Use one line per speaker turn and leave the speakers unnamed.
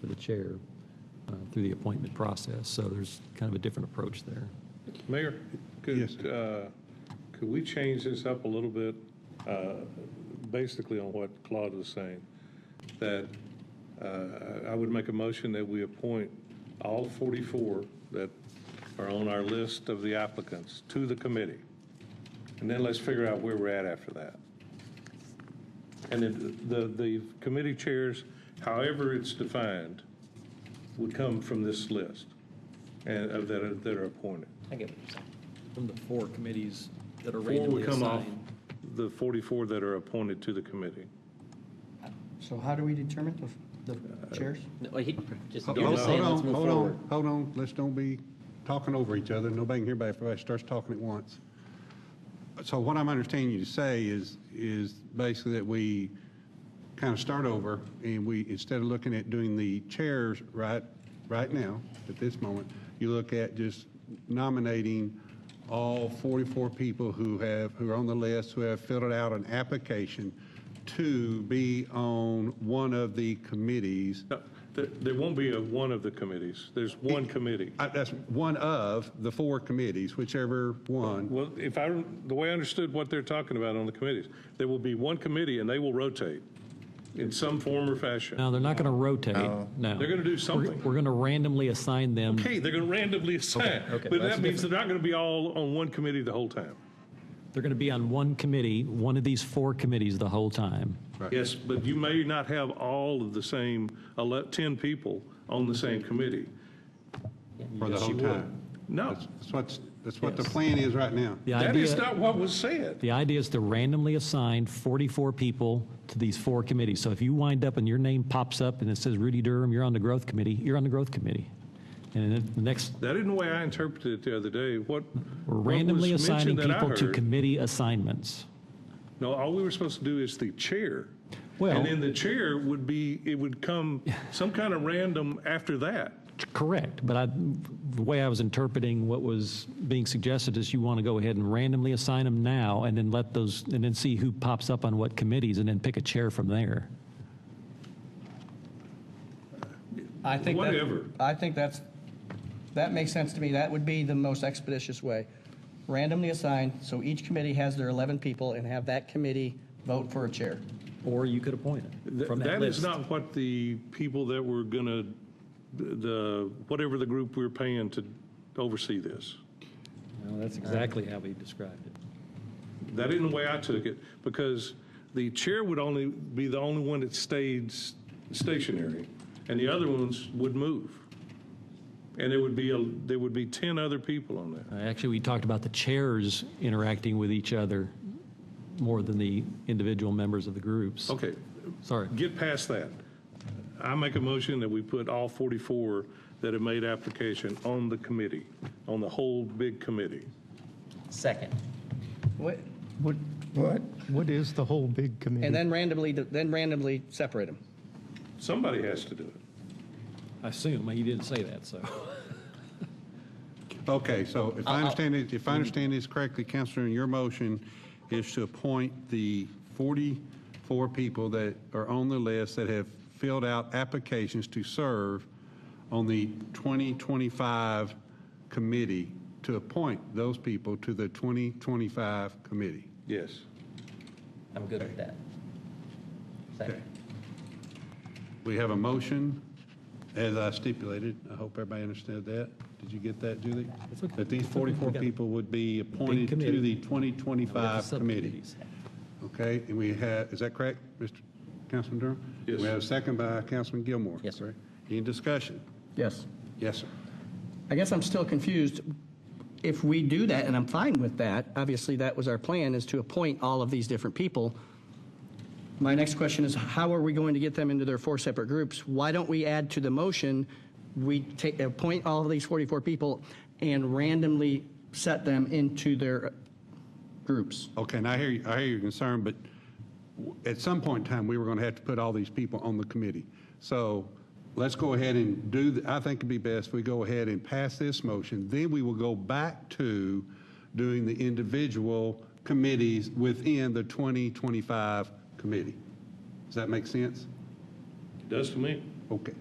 for the chair uh, through the appointment process. So there's kind of a different approach there.
Mayor,
Yes,
could, uh, could we change this up a little bit, uh, basically on what Claude was saying? That uh, I would make a motion that we appoint all 44 that are on our list of the applicants to the committee. And then let's figure out where we're at after that. And then the, the committee chairs, however it's defined, would come from this list and, of that are, that are appointed.
I get what you're saying. From the four committees that are
Four
randomly
would come off
assigned.
the 44 that are appointed to the committee.
So how do we determine the, the chairs?
Uh, No, wait, he- just-
Hold
you're
on,
just saying,
hold
let's
on,
move
hold
forward.
on, hold on. Let's don't be talking over each other. Nobody can hear everybody. Everybody starts talking at once. So what I'm understanding you to say is, is basically that we kind of start over and we, instead of looking at doing the chairs right, right now, at this moment, you look at just nominating all 44 people who have, who are on the list, who have filled out an application to be on one of the committees
No, There, there won't be a one of the committees. There's one committee.
I- That's one of the four committees, whichever one.
Well, if I, the way I understood what they're talking about on the committees, there will be one committee and they will rotate in some form or fashion.
Now, they're not going to rotate, no.
They're going to do something.
We're going to randomly assign them.
Okay, they're going to randomly assign,
okay.
but
That's
that means they're not going to be all on one committee the whole time.
They're going to be on one committee, one of these four committees the whole time.
Yes, but you may not have all of the same, ele- 10 people on the same committee.
For the
Yes,
whole
you would.
time.
No,
That's that's what's, that's what the
Yes.
plan is right now.
The
that is
idea,
not what was said.
the idea is to randomly assign 44 people to these four committees. So if you wind up and your name pops up and it says Rudy Durham, you're on the growth committee, you're on the growth committee. And then the next,
That isn't the way I interpreted it the other day. What?
we're
what was
randomly assigning
mentioned that I
people to
heard-
committee assignments.
No, all we were supposed to do is the chair.
Well-
And then the chair would be, it would come some kind of random after that.
Correct, but I, the way I was interpreting what was being suggested is you want to go ahead and randomly assign them now and then let those, and then see who pops up on what committees and then pick a chair from there.
I think that-
Whatever.
I think that's, that makes sense to me. That would be the most expeditious way. Randomly assigned, so each committee has their 11 people and have that committee vote for a chair.
Or you could appoint it
Th-
from that
That
list.
is not what the people that were gonna, the, whatever the group we're paying to oversee this.
No, that's exactly how we described it.
That isn't the way I took it, because the chair would only be the only one that stayed s- stationary, and the other ones would move. And there would be, a there would be 10 other people on there.
Uh, Actually, we talked about the chairs interacting with each other more than the individual members of the groups.
Okay,
Sorry.
get past that. I make a motion that we put all 44 that have made application on the committee, on the whole big committee.
Second.
What-
What, what, what is the whole big committee?
And then randomly, then randomly separate them.
Somebody has to do it.
I assume, you didn't say that, so.
Okay, so if I understand it, if I understand this correctly, Counselor, your motion is to appoint the 44 people that are on the list that have filled out applications to serve on the 2025 committee, to appoint those people to the 2025 committee.
Yes.
I'm good with that.
Okay.
Second.
We have a motion, as I stipulated. I hope everybody understood that. Did you get that, Julie?
It's okay.
That these 44
We got it.
people would be appointed
committee.
to the
Now we have
2025
the
committee.
subcommittees.
Okay, and we have, is that correct, Mr. Councilman Durham?
Yes.
We have a second by Councilman Gilmore.
Yes, sir.
correct? Any discussion?
Yes.
Yes, sir.
I guess I'm still confused. If we do that, and I'm fine with that, obviously that was our plan, is to appoint all of these different people. My next question is, how are we going to get them into their four separate groups? Why don't we add to the motion, we take, appoint all of these 44 people and randomly set them into their groups?
Okay, and I hear, you- I hear your concern, but w- at some point in time, we were going to have to put all these people on the committee. So let's go ahead and do, the- I think it'd be best if we go ahead and pass this motion, then we will go back to doing the individual committees within the 2025 committee. Does that make sense?
Does to me.
Okay,